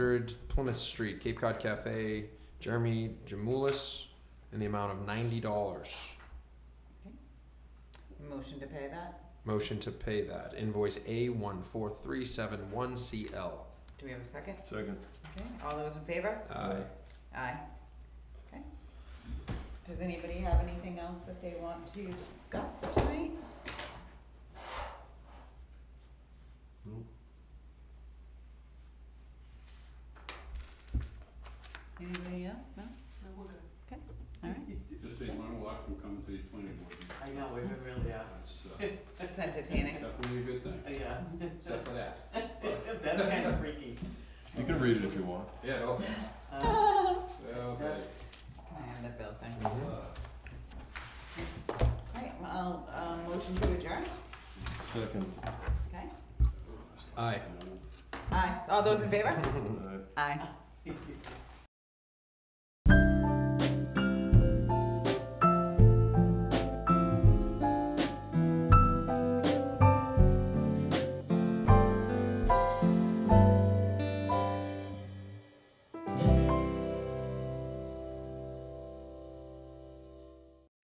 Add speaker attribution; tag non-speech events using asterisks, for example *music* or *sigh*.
Speaker 1: Plymouth Street, Cape Cod Cafe, Jeremy Jamulis, in the amount of ninety dollars.
Speaker 2: Motion to pay that?
Speaker 1: Motion to pay that invoice A one four three seven one CL.
Speaker 2: Do we have a second?
Speaker 3: Second.
Speaker 2: Okay, all those in favor?
Speaker 1: Aye.
Speaker 2: Aye. Okay. Does anybody have anything else that they want to discuss tonight?
Speaker 3: Nope.
Speaker 2: Anybody else? No? Okay, all *laughs* right.
Speaker 4: Just a learn a lot from coming to these planning board meetings.
Speaker 5: I know, we really uh, are.
Speaker 4: That's,
Speaker 2: That's
Speaker 4: uh,
Speaker 2: entertaining.
Speaker 4: definitely a good thing,
Speaker 5: *laughs* Yeah,
Speaker 4: except for that.
Speaker 5: *laughs* that's kind of freaky.
Speaker 3: You can read it if you want.
Speaker 4: Yeah, okay. *laughs*
Speaker 5: Um,
Speaker 4: Okay.
Speaker 5: That's,
Speaker 2: I have that bill thing.
Speaker 1: Mhm.
Speaker 2: All right, well, I'll, um, motion to adjourn.
Speaker 3: Second.
Speaker 2: Okay.
Speaker 1: Aye.
Speaker 2: *laughs* Aye. All those in favor?
Speaker 3: Uh,
Speaker 2: Aye.
Speaker 5: yeah.